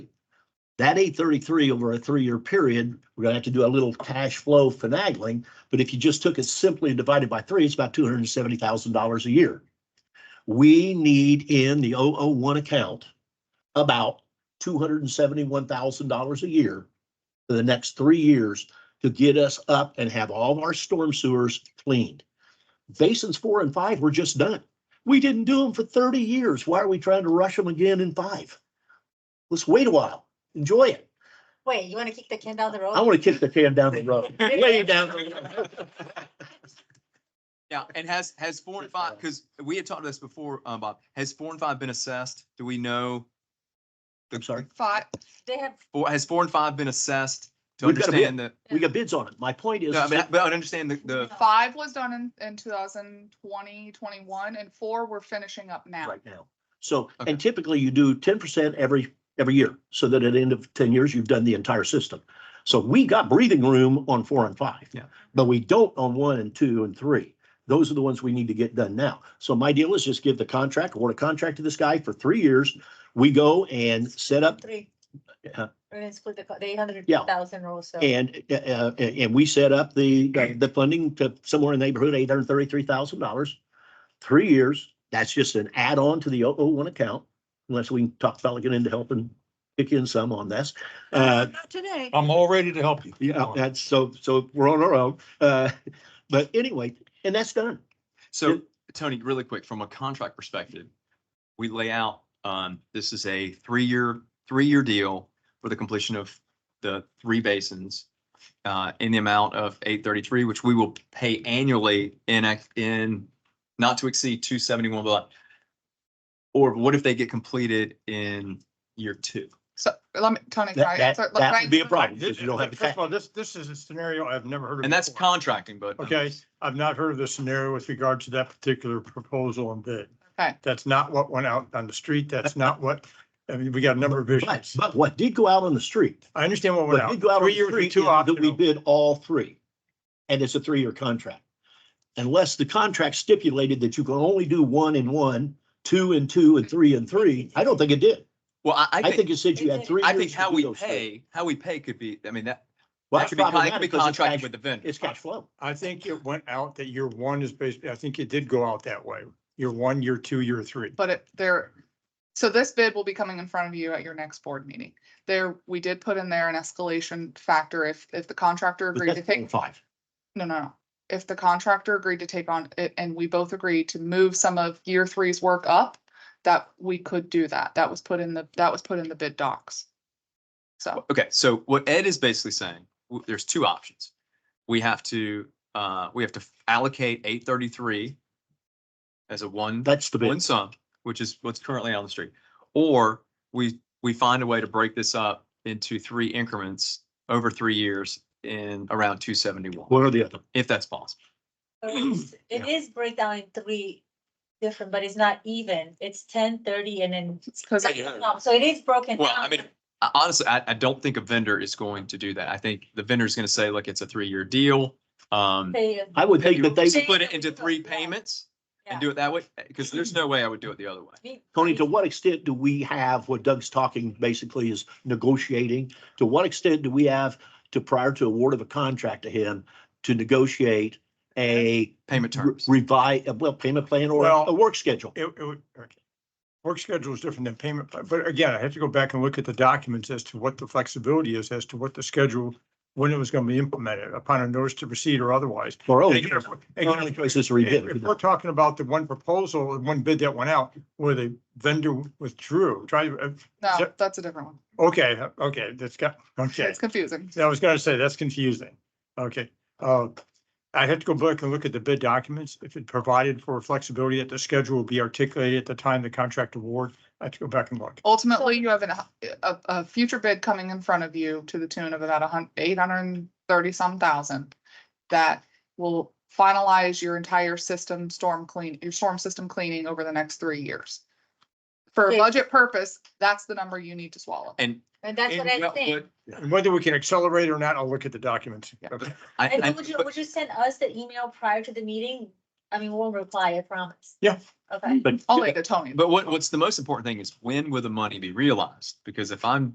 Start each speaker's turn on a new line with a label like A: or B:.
A: That eight thirty-three over a three-year period, we're gonna have to do a little cash flow finagling, but if you just took it simply divided by three, it's about two hundred and seventy thousand dollars a year. We need in the 001 account about two hundred and seventy-one thousand dollars a year for the next three years to get us up and have all of our storm sewers cleaned. Basins four and five were just done. We didn't do them for thirty years. Why are we trying to rush them again in five? Let's wait a while. Enjoy it.
B: Wait, you wanna kick the can down the road?
A: I want to kick the can down the road, way down. the road.
C: Yeah, and has, has four and five, because we had talked to this before, um, Bob, has four and five been assessed? Do we know?
A: I'm sorry.
C: Five.
B: They have,
C: Four, has four and five been assessed to
A: We've got a bid.
C: understand the,
A: We got bids on it. My point is,
C: no, I mean, but I understand the, the,
D: Five was done in, in 2020, 21, and four we're finishing up now.
A: right now. So,
C: Okay.
A: and typically you do ten percent every, every year, so that at the end of ten years, you've done the entire system. So we got breathing room on four and five.
C: Yeah.
A: But we don't on one and two and three. Those are the ones we need to get done now. So my deal is just give the contract, award a contract to this guy for three years. We go and set up
B: three.
A: Yeah.
B: We're gonna split the, co- the eight hundred
A: Yeah.
B: thousand or so.
A: And, uh, uh, and we set up the, the funding to somewhere in the neighborhood, eight hundred thirty-three thousand dollars. Three years, that's just an add-on to the 001 account, unless we can talk Pelican into helping kick in some on this. Uh,
B: Not today.
E: I'm all ready to help you.
A: yeah, that's, so, so we're on our own. Uh, but anyway, and that's done.
C: so, Tony, really quick, from a contract perspective, we lay out, um, this is a three-year, three-year deal for the completion of the three basins, uh, in the amount of eight thirty-three, which we will pay annually in, ac- in not to exceed two seventy-one, but or what if they get completed in year two?
D: So let me, Tony. can I
A: That, that,
D: answer? Let-
A: that
D: right-
A: would be a problem, because you don't have the
E: First
A: cash.
E: of all, this, this is a scenario I've never heard of.
C: And that's
E: before.
C: contracting, but. um,
E: Okay, I've not heard of this scenario with regard to that particular proposal and bid.
D: Okay.
E: That's not what went out on the street. That's not what, I mean, we got a number of
A: But,
E: issues.
A: but what did go out on the street,
E: I understand what went
A: what
E: out.
A: did go out on
E: Three
A: the
E: years with
A: street
E: two
A: is that we
E: optional.
A: bid all three. And it's a three-year contract. Unless the contract stipulated that you can only do one and one, two and two, and three and three, I don't think it did.
C: Well, I,
A: I think it said you had three
C: I think
A: years to
C: how
A: do
C: we
A: those things.
C: pay, how we pay could be, I mean, that,
A: Well,
C: that
A: that's
C: could be, that could be
A: problematic because it's
C: contracted
A: cash,
C: with the vendor.
A: it's cash flow.
E: I think it went out that year one is basically, I think it did go out that way. Year one, year two, year three.
D: But it, there, so this bid will be coming in front of you at your next board meeting. There, we did put in there an escalation factor if, if the contractor
A: But
D: agreed to
A: that's
D: take,
A: Five.
D: no, no, no. If the contractor agreed to take on it and we both agreed to move some of year three's work up, that we could do that. That was put in the, that was put in the bid docs. So,
C: Okay, so what Ed is basically saying, w- there's two options. We have to, uh, we have to allocate eight thirty-three as a one,
A: That's the
C: one
A: bid.
C: sum, which is what's currently on the street. Or we, we find a way to break this up into three increments over three years in around two seventy-one,
A: One or the other.
C: if that's possible.
B: So it's- It is breakdown in three different, but it's not even. It's ten, thirty, and then.
D: because
B: No, So it is broken
C: Well,
B: down.
C: I mean, I- Honestly, I, I don't think a vendor is going to do that. I think the vendor's gonna say, look, it's a three-year deal. Um,
B: They-
A: I would think that they,
C: split it into three
B: Yeah.
C: payments
B: Yeah.
C: and do it that way, because there's no way I would do it the other way.
B: we-
A: Tony, to what extent do we have, what Doug's talking basically is negotiating, to what extent do we have to prior to award of a contract to him to negotiate a
C: Payment terms.
A: revise, well, payment plan or
E: Well-
A: a work schedule?
E: It, it would, okay. Work schedule is different than payment, plan, but again, I have to go back and look at the documents as to what the flexibility is, as to what the schedule, when it was going to be implemented upon a notice to proceed or otherwise.
A: Or only,
E: Again, if-
A: our only
E: again,
A: choice is to
E: If
A: rebid.
E: we're talking about the one proposal, and one bid that went out, where the vendor withdrew, try, uh,
D: no,
E: So-
D: that's a different one.
E: okay, okay, that's got, okay.
D: It's confusing.
E: I was gonna say, that's confusing. Okay, uh, I have to go back and look at the bid documents. If it provided for flexibility that the schedule will be articulated at the time the contract award, I have to go back and look.
D: Ultimately, you have an, a, a future bid coming in front of you to the tune of about a hun, eight hundred and thirty some thousand. That will finalize your entire system storm clean, your storm system cleaning over the next three years. For a
B: Okay.
D: budget purpose, that's the number you need to swallow.
C: And
B: And that's what I
C: Well,
B: think.
E: And whether we can accelerate or not, I'll look at the documents.
D: Yeah.
E: Okay.
C: I,
B: And
C: I,
B: would you, would you send us the email prior to the meeting? I mean, we'll reply, I promise.
E: Yeah.
B: Okay.
A: But
D: I'll leave it to Tony.
C: but what, what's the most important thing is when will the money be realized? Because if I'm